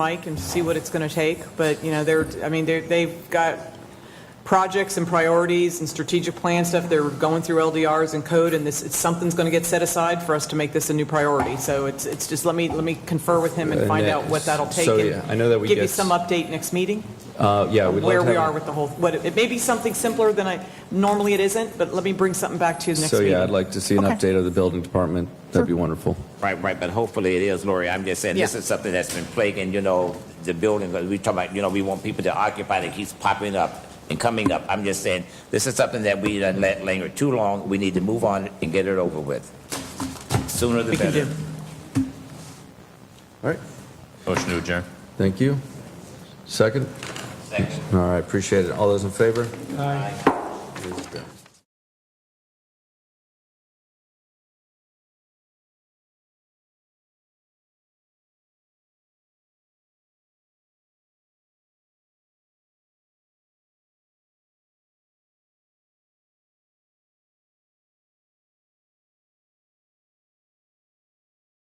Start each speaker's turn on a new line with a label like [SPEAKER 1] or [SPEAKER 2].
[SPEAKER 1] Mike and see what it's going to take, but, you know, they're, I mean, they're, they've got projects and priorities and strategic plan stuff, they're going through LDRs and code, and this, it's- something's going to get set aside for us to make this a new priority, so it's, it's just, let me, let me confer with him and
[SPEAKER 2] And
[SPEAKER 1] find
[SPEAKER 2] that-
[SPEAKER 1] out what that'll take.
[SPEAKER 2] so,
[SPEAKER 1] and
[SPEAKER 2] yeah, I know that we
[SPEAKER 1] Give you
[SPEAKER 2] get-
[SPEAKER 1] some update next meeting,
[SPEAKER 2] Uh, yeah, we'd
[SPEAKER 1] where
[SPEAKER 2] love to
[SPEAKER 1] we
[SPEAKER 2] have-
[SPEAKER 1] are with the whole, what, it may be something simpler than I, normally it isn't, but let me bring something back to you next
[SPEAKER 2] So
[SPEAKER 1] meeting.
[SPEAKER 2] yeah, I'd like to see an
[SPEAKER 1] Okay.
[SPEAKER 2] update of the building department. That'd be wonderful.
[SPEAKER 3] Right, right, but hopefully it is, Lori. I'm just saying, this
[SPEAKER 1] Yeah.
[SPEAKER 3] is something that's been plaguing, you know, the building, we talk about, you know, we want people to occupy, that keeps popping up and coming up. I'm just saying, this is something that we done let linger too long. We need to move on and get it over with. Sooner the
[SPEAKER 1] We can
[SPEAKER 3] better.
[SPEAKER 1] do.
[SPEAKER 2] All right.
[SPEAKER 4] Motion to adjourn.
[SPEAKER 2] Thank you. Second?
[SPEAKER 3] Second.
[SPEAKER 2] All right, appreciate it. All those in favor? Aye.